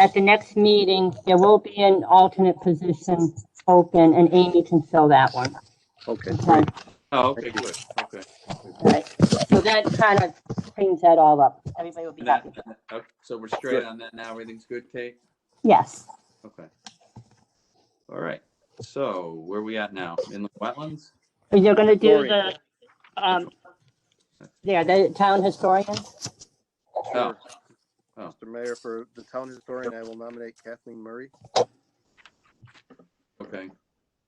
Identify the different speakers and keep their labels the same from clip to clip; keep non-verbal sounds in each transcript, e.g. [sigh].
Speaker 1: at the next meeting, there will be an alternate position open, and Amy can fill that one.
Speaker 2: Okay,
Speaker 1: Okay,
Speaker 3: Oh, okay, good, okay.
Speaker 1: All right. So that kind of cleans that all up. Everybody will be
Speaker 3: And that-
Speaker 1: happy.
Speaker 3: okay, So we're straight on that now, everything's good, Kate?
Speaker 1: Yes.
Speaker 3: Okay. All right, so where we at now? In the wetlands?
Speaker 1: But You're gonna do
Speaker 2: Gloria.
Speaker 1: the, um, yeah, the town historian?
Speaker 3: Oh, Oh.
Speaker 2: Mr. Mayor, for the town historian, I will nominate Kathleen Murray.
Speaker 3: Oh, okay,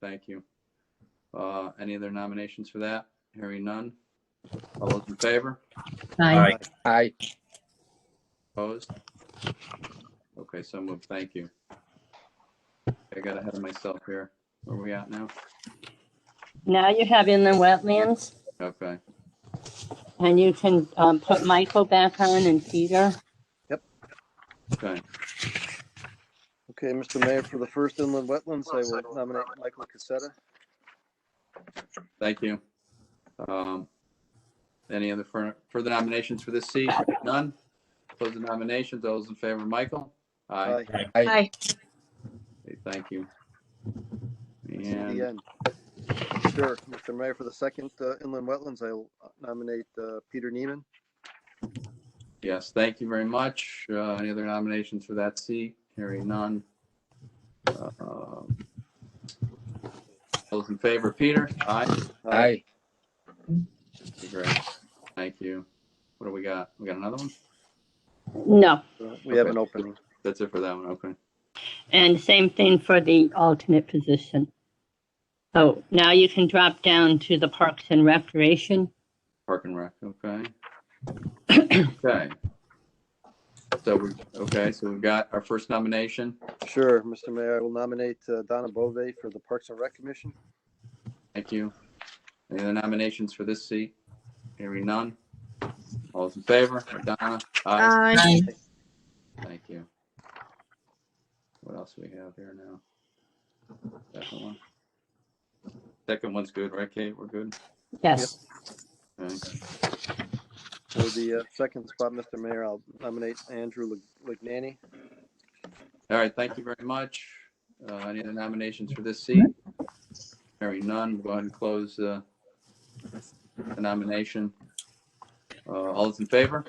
Speaker 3: thank you. Uh, any other nominations for that? Hearing none? All those in favor?
Speaker 4: Aye.
Speaker 2: Aye.
Speaker 3: Opposed? Okay, so moved, thank you. I got ahead of myself here. Where we at now?
Speaker 1: Now you have inland wetlands,
Speaker 3: Okay,
Speaker 1: and you can, um, put Michael back on and Peter.
Speaker 3: okay,
Speaker 2: Okay, Mr. Mayor, for the first inland wetlands, I will nominate Michael Cassetta.
Speaker 3: thank you. Um, any other fur- further nominations for this seat? None? Close the nominations, all those in favor, Michael? Aye.
Speaker 2: Aye.
Speaker 4: Aye.
Speaker 3: Okay, Thank you.
Speaker 2: See the
Speaker 3: And
Speaker 2: end. Sure, Mr. Mayor, for the second uh, inland wetlands, I will nominate uh, Peter Neiman.
Speaker 3: yes, thank you very much. Uh, Any other nominations for that seat? Hearing none. Uh, um, Those in favor, Peter? Aye.
Speaker 2: Aye.
Speaker 3: Great. Thank you. What do we got? We got another one?
Speaker 1: No,
Speaker 2: So uh, We have an opening.
Speaker 3: That's it for that one. Okay.
Speaker 1: and same thing for the alternate position. So now you can drop down to the Parks and Recreation.
Speaker 3: Park and Rec. Okay. Okay. So we, okay, so we've got our first nomination.
Speaker 2: Sure, Mr. Mayor, I will nominate uh, Donna Bove for the Parks and Rec Commission.
Speaker 3: Thank you. Any other nominations for this seat? Hearing none. All those in favor? Donna? Aye.
Speaker 4: Aye.
Speaker 3: Thank you. What else we have here now? Second one. Second one's good, right, Kate? We're good?
Speaker 1: Yes.
Speaker 3: Okay.
Speaker 2: For the uh, second spot, Mr. Mayor, I'll nominate Andrew Lig- Lignani.
Speaker 3: All right, thank you very much. Uh, Any other nominations for this seat? Hearing none, we'll go ahead and close uh, the nomination. Uh, All those in favor?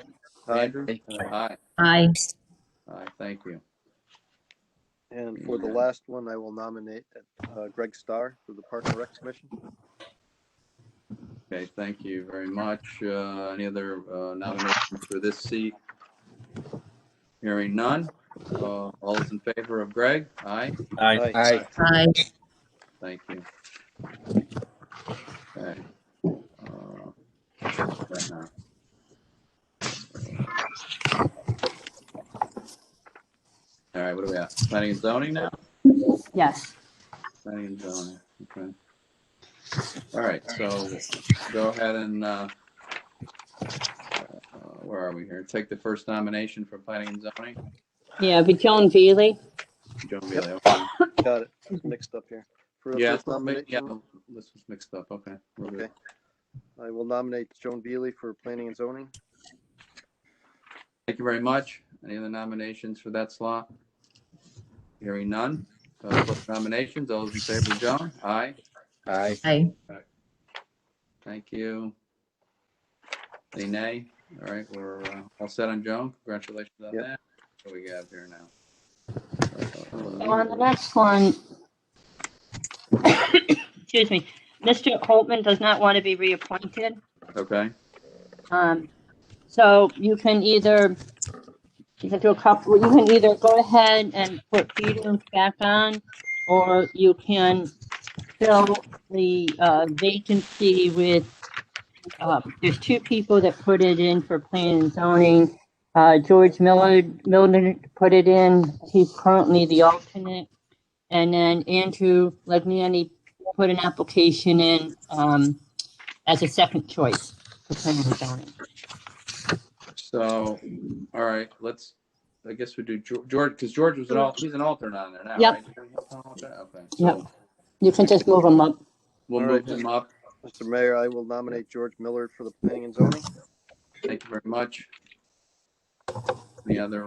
Speaker 2: Aye.
Speaker 3: Andrew? Aye.
Speaker 4: Aye.
Speaker 3: Aye, thank you.
Speaker 2: And for the last one, I will nominate uh, Greg Starr for the Park and Rec Commission.
Speaker 3: Okay, thank you very much. Uh, Any other uh, nominations for this seat? Hearing none. Uh, All those in favor of Greg? Aye,
Speaker 2: Aye.
Speaker 4: Aye.
Speaker 3: thank you. Okay. Uh, right now. All right, what do we have? Planning and zoning now?
Speaker 1: Yes.
Speaker 3: Planning and zoning, okay. All right, so go ahead and, uh, uh, where are we here? Take the first nomination for planning and zoning.
Speaker 1: Yeah, but Joan Veely.
Speaker 3: Joan Bailey, okay.
Speaker 2: Got it mixed up here. For the
Speaker 3: Yeah,
Speaker 2: first
Speaker 3: yeah,
Speaker 2: nomination,
Speaker 3: this was mixed up, okay. we're good.
Speaker 2: Okay. I will nominate Joan Beely for Planning and Zoning.
Speaker 3: Thank you very much. Any other nominations for that slot? Hearing none. Uh, close Nominations, all those in favor, Joan? Aye,
Speaker 2: Aye.
Speaker 4: Aye.
Speaker 3: thank you. Any nay? All right, we're uh, all set on Joan. Congratulations on
Speaker 2: Yep.
Speaker 3: that. What do we got here now?
Speaker 1: On the next one. [coughs] Excuse me. Mr. Holtman does not want to be reappointed.
Speaker 3: Okay,
Speaker 1: Um, so you can either, you can do a couple, you can either go ahead and put Peter back on, or you can fill the, uh, vacancy with, uh, there's two people that put it in for planning and zoning. Uh, George Miller, Miller put it in, he's currently the alternate. And then Andrew Legnani put an application in, um, as a second choice for planning and zoning.
Speaker 3: so, all right, let's, I guess we do Geor- George, because George was an al, he's an alternate on there now,
Speaker 1: Yep.
Speaker 3: right? Okay, so
Speaker 1: You can just move them up.
Speaker 3: we'll
Speaker 2: All
Speaker 3: move
Speaker 2: right.
Speaker 3: him up.
Speaker 2: Mr. Mayor, I will nominate George Miller for the Planning and Zoning.
Speaker 3: Thank you very much. Any other